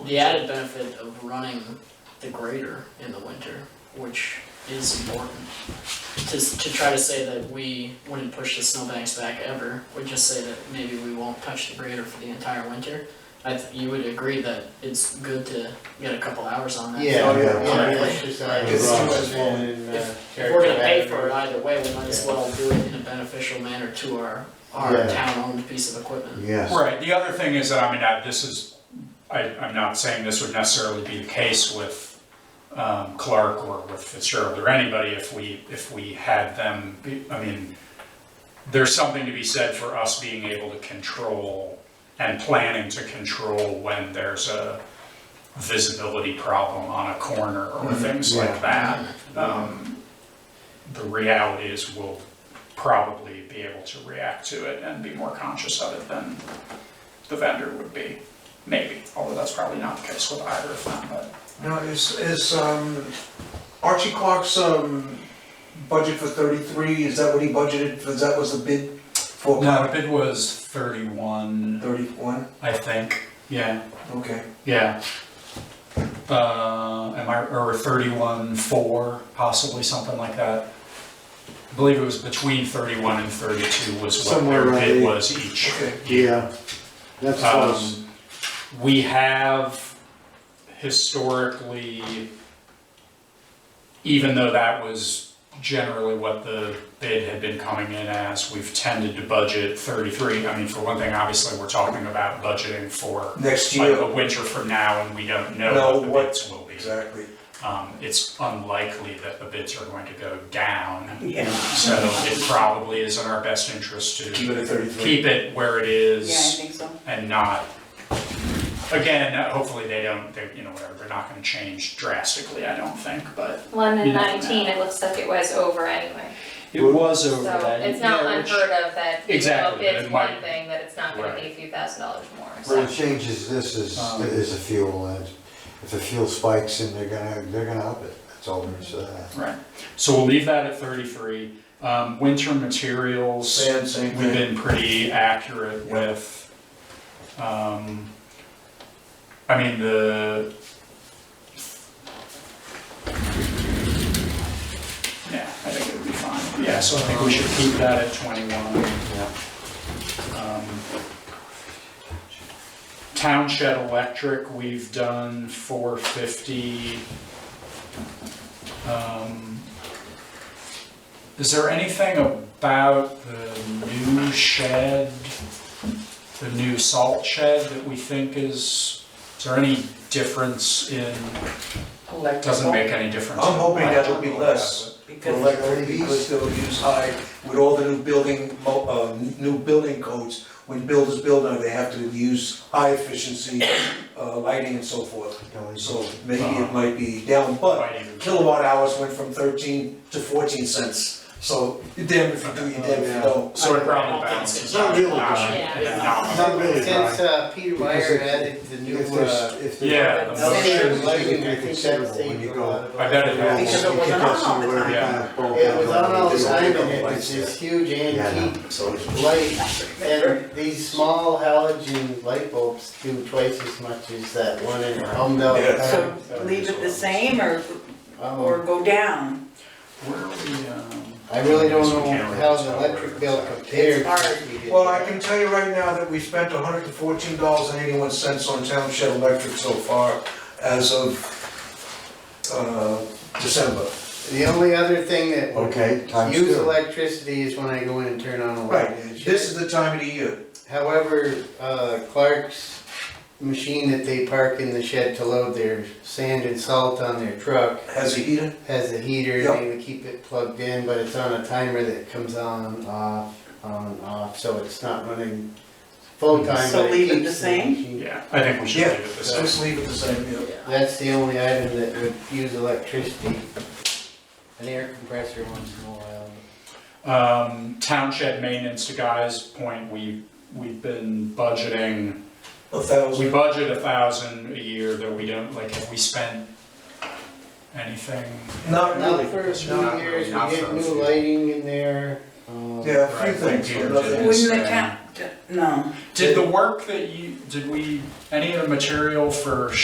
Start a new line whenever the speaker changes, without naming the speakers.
the added benefit of running the grader in the winter, which is important. To, s- to try to say that we wouldn't push the snowbanks back ever, would just say that maybe we won't touch the grader for the entire winter. I, th- you would agree that it's good to get a couple hours on that.
Yeah,
Oh, yeah,
yeah,
yeah.
it's just, uh,
It's too much
it's rolling in, uh,
If we're gonna pay for it
character.
either way, we might as well do it in a beneficial manner to our, our
Yeah.
town-owned piece of equipment.
Yes.
Right, the other thing is that, I mean, I, this is, I, I'm not saying this would necessarily be the case with, um, Clark or with Fitzgerald or anybody if we, if we had them, be- I mean, there's something to be said for us being able to control and planning to control when there's a visibility problem on a corner or things
Mm-hmm. Yeah.
like that. Um, the reality is we'll probably be able to react to it and be more conscious of it than the vendor would be, maybe, although that's probably not the case with either of them, but.
Now, is, is, um, Archie Clark's, um, budget for thirty-three, is that what he budgeted, was that was the bid for?
No, it was thirty-one,
Thirty-one,
I think, yeah,
okay,
yeah. Uh, am I, or thirty-one, four, possibly something like that. I believe it was between thirty-one and thirty-two was what
Somewhere
their
around
bid
there.
was each.
okay.
Yeah, that's close.
Um, we have historically, even though that was generally what the bid had been coming in as, we've tended to budget thirty-three. I mean, for one thing, obviously, we're talking about budgeting for
Next
like a
year,
winter from now, and we don't
Know
know what
what-
the bids will be.
exactly.
Um, it's unlikely that the bids are going to go down,
Yeah.
so it probably is in our best interest
Keep
to
it at thirty-three.
keep it where it is
Yeah, I think so.
and not, again, hopefully they don't, they, you know, whatever, they're not gonna change drastically, I don't think, but.
One
You
in
know.
nineteen, it looks like it was over anyway,
It was
so it's not unheard of that, you know,
Exactly,
if it's
it might-
one thing, that it's not gonna be
Right.
a few thousand dollars more, so.
What changes this is,
Um,
is the fuel, and if the fuel spikes and they're gonna, they're gonna up it, that's all there's to that.
Right, so we'll leave that at thirty-three, um, winter materials,
Same, same
we've
thing.
been pretty accurate
Yeah.
with. Um, I mean, the. Yeah, I think it would be fine, yeah, so I think we should keep that at twenty-one. Um, Town shed electric, we've done four fifty. Um, Is there anything about the new shed, the new salt shed that we think is, is there any difference in, doesn't make any difference?
I'm hoping that will be less. For
Because-
electric, because they'll use high, with all the new building, mo- uh, new building codes, when builders build now, they have to use high efficiency, uh, lighting and so forth. So maybe
Uh-huh.
it might be down, but
Might even-
kilowatt hours went from thirteen to fourteen cents. So you're damned if you do, you're damned if you don't.
So it
I don't
probably
think
balances
it's
out.
not
really
Not-
bad.
yeah,
Yeah.
not-
Not really,
Since,
Brian.
uh, Peter
Because
Meyer
it-
added the new,
If
uh.
there's, if there's.
Yeah, the
elevator
elevator
motion,
lighting
lighting, I
is
think that
considerable
saved
when you
a
go-
lot of
I bet it
lives.
helps.
Because it was
You
on
can see
all the
where
time.
you kinda bulb
It was on all the
out.
time, and it was this huge
Yeah,
antique light, and these small halogen light bulbs do twice as much as that one in Home Belt.
Yeah.
uh, So leave it the same or, or
Um,
go down?
Where are we, um?
I really don't
We
know
can't really
how the
tell where
electric bill
it's at.
compared.
It's hard.
to the-
Well, I can tell you right now that we spent hundred and fourteen dollars and eighty-one cents on township electric so far as of, uh, December.
The only other thing that would
Okay, Oh, times
use
two.
electricity is when I go in and turn on a light.
Right,
in the shed.
this is the time of the year.
However, uh, Clark's machine that they park in the shed to load their sand and salt on their truck
Has a heater?
has a heater,
Yeah.
they would keep it plugged in, but it's on a timer that comes on, off, on, off, so it's not running
Mm-hmm.
full time,
So
but it
leave it
keeps
the same?
machine-
Yeah, I think we should
Yeah.
leave it the same.
Just leave it the same, yeah.
That's the only item that would use electricity. An air compressor once in a while.
Um, town shed maintenance to Guy's point, we, we've been budgeting,
A
we
thousand.
budget a thousand a year, though we don't, like, have we spent anything?
Not
Not
really.
for a few
Not really,
years, we
not
get
for a
new
few.
lighting in there, um.
Yeah, a few
Right,
things,
like
but
Peter
nothing.
did.
Wouldn't the
Yes.
town, no.
Did the work that you, did we, any of the material for